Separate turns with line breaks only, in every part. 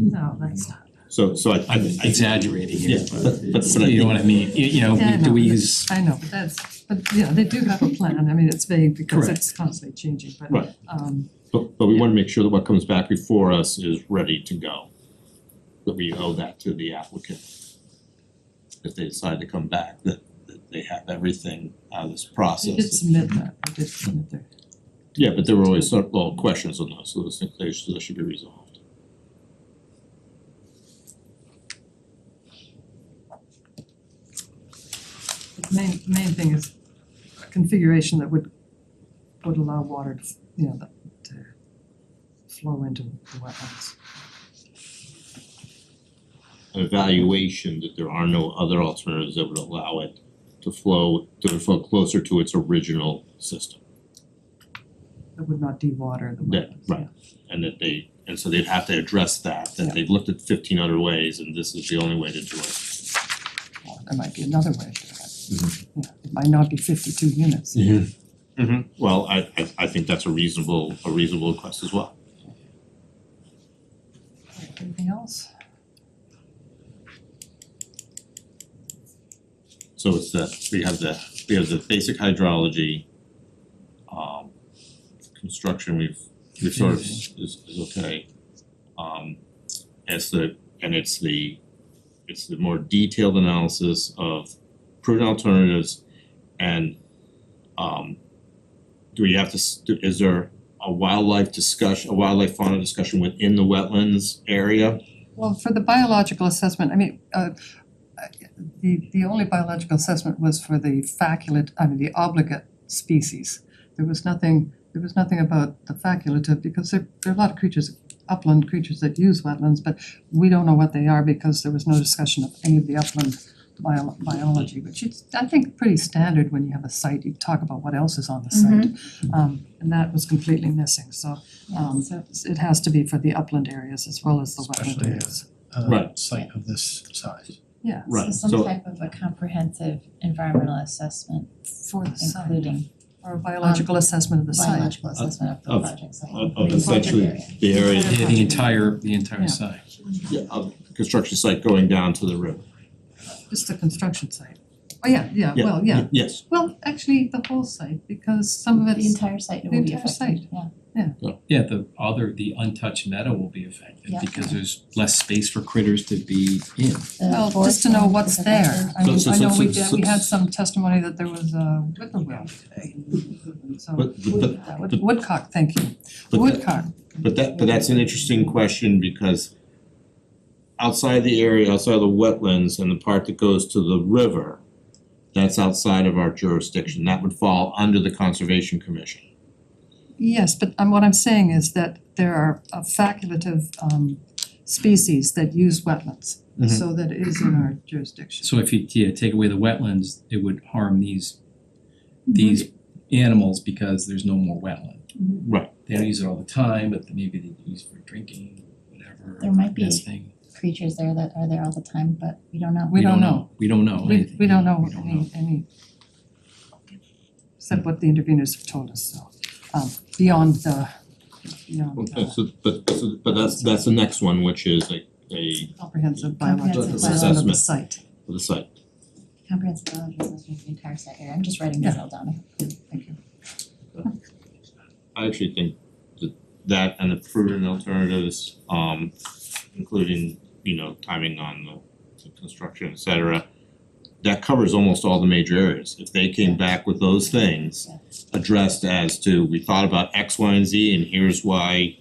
No, that's not.
So so I I
I'm
I
exaggerating here,
Yeah,
but
but- but- but I
you know what I mean, you you know,
Yeah, I
do
know,
we
but-
use,
I know, but that's, but you know, they do have a plan, I mean, it's vague because
Correct.
it's constantly changing, but
Right.
um
but but we wanna make sure that what comes back before us is ready to go. That we owe that to the applicant. If they decide to come back, that that they have everything out of this
they
process.
did submit that, they did submit their,
Yeah, but there were always sort of little questions on those, so those things they should those should be resolved.
the main main thing is a configuration that would would allow water to, you know, that to flow into the wetlands.
An evaluation that there are no other alternatives that would allow it to flow to flow closer to its original system.
That would not de-water the
That,
wetlands.
right, and that they, and so they'd have to address that, that they've looked at fifteen other ways and this is the only way to do it.
Well, There might be another way to do it. Yeah, it might not be fifty-two units.
Well, I I I think that's a reasonable, a reasonable request as well.
Anything else?
So it's the, we have the, we have the basic hydrology. Um construction, we've we've sort of is is okay. Um it's the, and it's the, it's the more detailed analysis of prudent alternatives and um do we have to, s- do- is there a wildlife discussion, a wildlife fauna discussion within the wetlands area?
Well, for the biological assessment, I mean, uh, uh, the, the only biological assessment was for the faculate, I mean, the obligate species. There was nothing, there was nothing about the facultative, because there, there are a lot of creatures, upland creatures that use wetlands, but we don't know what they are because there was no discussion of any of the upland bio- biology, which is, I think, pretty standard when you have a site, you talk about what else is on the site. Um, and that was completely missing, so, um, it has to be for the upland areas as well as the wetland
Especially, yeah.
areas.
uh,
Right.
site of this size.
Yeah,
Right,
So
so-
some type of a comprehensive environmental assessment,
for the site,
including um,
or a biological assessment of the site.
biological assessment of the
Of-
project site.
of- of
Project
essentially
area.
The area
yeah, the entire, the entire
Yeah.
side.
yeah, of construction site going down to the river.
Just the construction site. Oh, yeah, yeah,
Yeah,
well, yeah.
y- Yes,
Well, actually, the whole site, because some of
The
it's,
entire site
the
will be
entire
affected,
site.
yeah.
Yeah, the other, the untouched meadow will be affected
Yeah.
because there's less space for critters to be in.
The
well, just
forest
to know
land
what's
is
there.
affected.
I
So-
mean,
so-
I know
so-
we
so-
did, we had some testimony that there was a whippoorwill today. So,
But- but- but-
uh, wood-
but-
woodcock, thank you.
but that-
Woodcock,
But that, but that's an interesting question because outside the area, outside of the wetlands and the part that goes to the river, that's outside of our jurisdiction. That would fall under the Conservation Commission.
yes, but um, what I'm saying is that there are uh, facultative um species that use wetlands.
Mhm.
So that it is in our jurisdiction.
So if you, yeah, take away the wetlands, it would harm these, these
Mm-hmm.
animals because there's no more wetland.
Right.
They don't use it all the time, but maybe they use it for drinking, whatever,
There might be-
nesting.
Creatures there that are there all the time, but we don't know.
We don't know.
We don't know
We
anything.
we don't know
We don't know.
any any except what the interveners have told us, so um beyond the beyond
Okay,
the
so, but, so, but that's, that's the next one, which is a, a,
comprehensive biological
Comprehensive
assessment of the
assessment.
site.
the site.
Comprehensive biological assessment of the entire site area, I'm just writing this all down, thank you.
I actually think that that and the prudent alternatives, um, including, you know, timing on the the construction, et cetera, that covers almost all the major areas. If they came back with those things addressed as to, we thought about X, Y, and Z, and here's why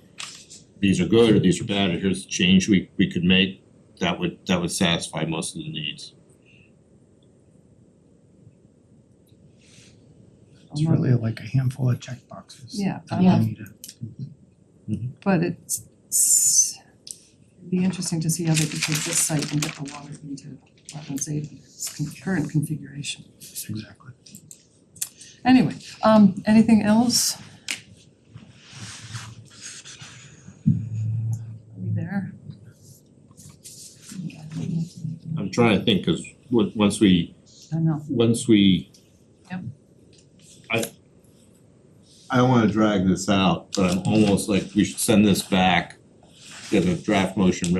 these are good, or these are bad, or here's the change we we could make, that would that would satisfy most of the needs.
It's really like a handful of checkboxes.
Yeah,
that
I
we
Yeah.
need to complete.
but it's it's it'd be interesting to see how they could take this site and get the water into wetlands eight in its con- current configuration.
Exactly.
Anyway, um anything else? Are we there?
I'm trying to think, cause on- once we
I know.
once we.
Yep.
I I don't wanna drag this out, but I'm almost like we should send this back, get a draft motion written